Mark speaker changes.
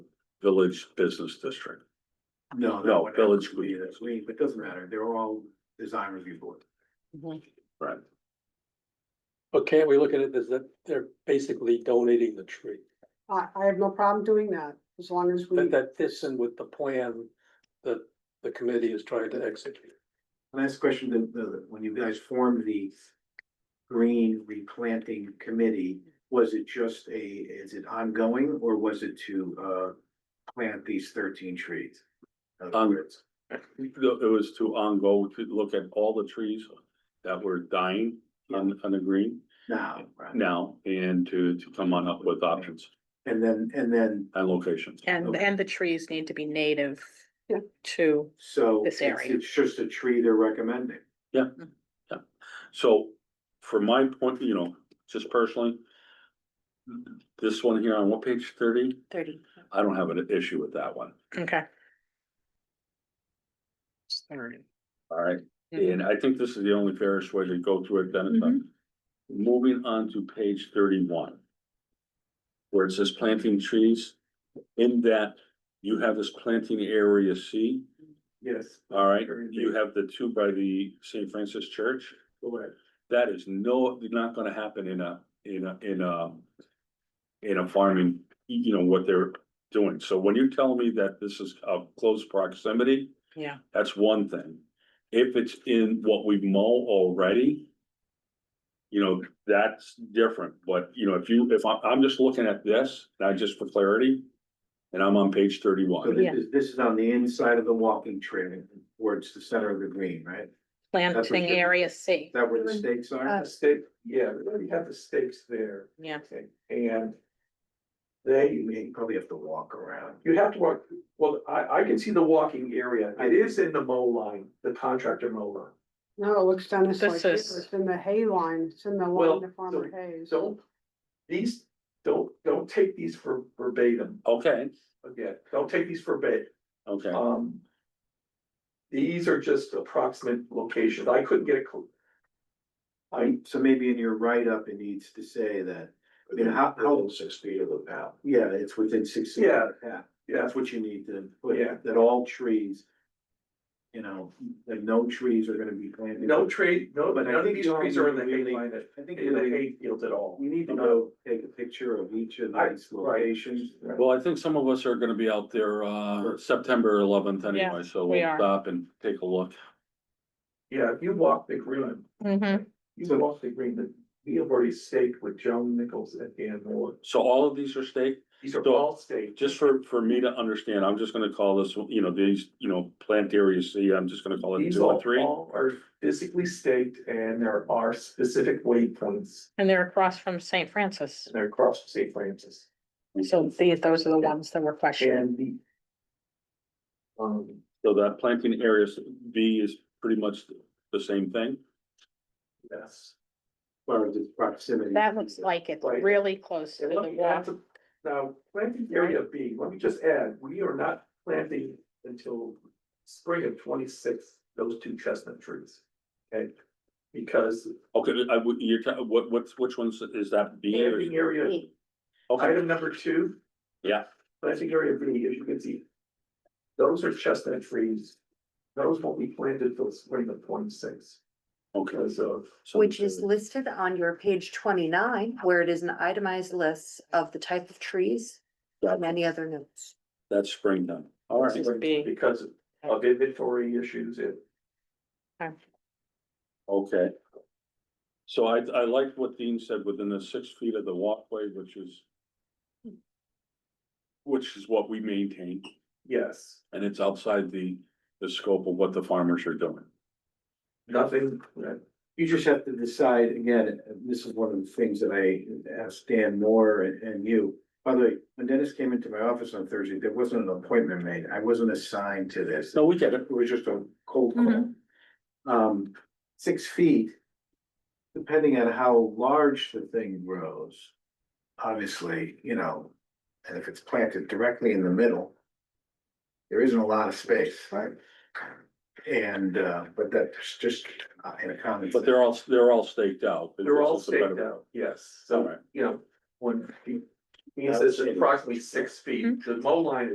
Speaker 1: village business district.
Speaker 2: No,
Speaker 1: No,
Speaker 2: no,
Speaker 1: village
Speaker 2: village would be
Speaker 1: green.
Speaker 2: this week, but it doesn't matter. They were all design review board.
Speaker 1: Right.
Speaker 3: But can't we look at it as that they're basically donating the tree?
Speaker 4: I, I have no problem doing that, as long as we,
Speaker 3: That, that fits in with the plan that the committee is trying to execute.
Speaker 2: Last question, the, the, when you guys formed the green replanting committee, was it just a, is it ongoing or was it to, uh, plant these thirteen trees? In other
Speaker 1: Um,
Speaker 2: words,
Speaker 1: It was to ongo, to look at all the trees that were dying on, on the green
Speaker 2: Now, right?
Speaker 1: now and to, to come on up with options
Speaker 2: and then, and then,
Speaker 1: and locations.
Speaker 5: And, and the trees need to be native
Speaker 4: Yeah.
Speaker 5: to,
Speaker 2: so
Speaker 5: This
Speaker 2: it's,
Speaker 5: area.
Speaker 2: it's just a tree they're recommending.
Speaker 1: So from my point, you know, just personally, this one here on what page thirty?
Speaker 5: thirty,
Speaker 1: I don't have an issue with that one.
Speaker 5: okay.
Speaker 1: All right, and I think this is the only fairest way to go through it, Dennis.
Speaker 5: Mhm.
Speaker 1: Moving on to page thirty-one. Where it says planting trees, in that you have this planting area C,
Speaker 2: Yes.
Speaker 1: all right? You have the two by the St. Francis Church.
Speaker 2: Correct.
Speaker 1: That is no, not gonna happen in a, in a, in a. In a farming, you know, what they're doing. So when you tell me that this is of close proximity.
Speaker 5: Yeah.
Speaker 1: That's one thing. If it's in what we mow already. You know, that's different, but you know, if you, if I'm, I'm just looking at this, not just for clarity. And I'm on page
Speaker 2: So
Speaker 1: thirty-one,
Speaker 2: this is, this is on the inside of the walking trail, where it's the center of the green, right?
Speaker 5: Planting
Speaker 2: you're-
Speaker 5: area C,
Speaker 2: Is that where the stakes are?
Speaker 4: Uh,
Speaker 6: The stake, yeah, we already have the stakes there,
Speaker 5: yeah,
Speaker 6: okay, and they,
Speaker 2: You probably have to walk around.
Speaker 6: you have to walk, well, I, I can see the walking area, it is in the mow line, the contractor mow line.
Speaker 4: no, it looks Dennis
Speaker 5: This
Speaker 4: like here,
Speaker 5: is-
Speaker 4: it's in the hay line, it's in the
Speaker 6: Well,
Speaker 4: line to Farmer
Speaker 6: so-
Speaker 4: Hayes.
Speaker 6: Don't, these, don't, don't take these for verbatim,
Speaker 1: okay,
Speaker 6: again, don't take these verbatim,
Speaker 1: okay,
Speaker 6: um. These are just approximate locations, I couldn't get a. cl- I,
Speaker 2: So maybe in your write-up, it needs to say that, I mean, how, how,
Speaker 6: six feet of the path.
Speaker 2: yeah, it's within six. feet.
Speaker 6: Yeah.
Speaker 2: Yeah,
Speaker 6: Yeah,
Speaker 2: that's what you need to, put,
Speaker 6: Yeah.
Speaker 2: that all trees. You know, that no trees are gonna be planted.
Speaker 6: no tree, no, but
Speaker 2: But I
Speaker 6: none of
Speaker 2: think
Speaker 6: these
Speaker 2: you all
Speaker 6: trees are in the
Speaker 2: need to
Speaker 6: hay
Speaker 2: really-
Speaker 6: line, at-
Speaker 2: I think
Speaker 6: in
Speaker 2: you
Speaker 6: the
Speaker 2: know,
Speaker 6: hay fields at all.
Speaker 2: you need to go take a picture of each of
Speaker 6: I-
Speaker 2: these locations.
Speaker 1: well, I think some of us are gonna be out there, uh, September eleventh anyway, so
Speaker 5: we
Speaker 1: we'll
Speaker 5: are.
Speaker 1: stop and take a look.
Speaker 6: Yeah, if you walk the green,
Speaker 5: Mhm.
Speaker 6: you
Speaker 2: So-
Speaker 6: walk the green, that we have already staked with Joan Nichols and Dan Moore.
Speaker 1: So all of these are staked?
Speaker 6: These are
Speaker 1: So-
Speaker 6: all staked.
Speaker 1: just for, for me to understand, I'm just gonna call this, you know, these, you know, plant area C, I'm just gonna call it
Speaker 6: These
Speaker 1: two
Speaker 6: all,
Speaker 1: and three.
Speaker 6: all are physically staked and there are specific waypoints.
Speaker 5: and they're across from Saint Francis,
Speaker 6: They're across from St. Francis
Speaker 5: so the, those are the ones that were questioned.
Speaker 6: and the. Um,
Speaker 1: So that planting area B is pretty much the same thing.
Speaker 6: yes.
Speaker 2: Far as its proximity.
Speaker 5: That looks like it's
Speaker 6: Right.
Speaker 5: really close to
Speaker 6: And
Speaker 5: the
Speaker 6: let me add
Speaker 5: wall.
Speaker 6: to- Now, planting area B, let me just add, we are not planting until spring of twenty-six, those two chestnut trees. Okay, because
Speaker 1: Okay, I, would- you're, ta- what, what's, which ones is that B or?
Speaker 6: planting area
Speaker 1: Okay,
Speaker 6: Item number two.
Speaker 1: Yeah.
Speaker 6: Planting area B, as you can see. Those are chestnut trees. Those won't be planted till spring of twenty-six
Speaker 1: okay.
Speaker 6: because of,
Speaker 1: So-
Speaker 7: Which is listed on your page twenty-nine, where it is an itemized list of the type of trees
Speaker 1: Gotcha.
Speaker 7: and any other notes.
Speaker 1: That's springtime, all right,
Speaker 5: This is B.
Speaker 6: because of inventory issues and
Speaker 1: okay. So I, I liked what Dean said, within the six feet of the walkway, which is. Which is what we maintain,
Speaker 6: yes,
Speaker 1: and it's outside the, the scope of what the farmers are doing.
Speaker 6: nothing, uh,
Speaker 2: You just have to decide, again, and this is one of the things that I asked Dan Moore and, and you. By the way, when Dennis came into my office on Thursday, there wasn't an appointment made. I wasn't assigned to this.
Speaker 1: No, we get it.
Speaker 2: It was just a cold call. Um, six feet, depending on how large the thing grows. Obviously, you know, and if it's planted directly in the middle. There isn't a lot of space, right? And, uh, but that's just uh, in a common.
Speaker 1: But they're all, they're all staked out. but
Speaker 6: they're all
Speaker 1: this is a better-
Speaker 6: staked out, yes,
Speaker 1: All
Speaker 6: so,
Speaker 1: right.
Speaker 6: you know, when. He he says approximately six feet, the mow line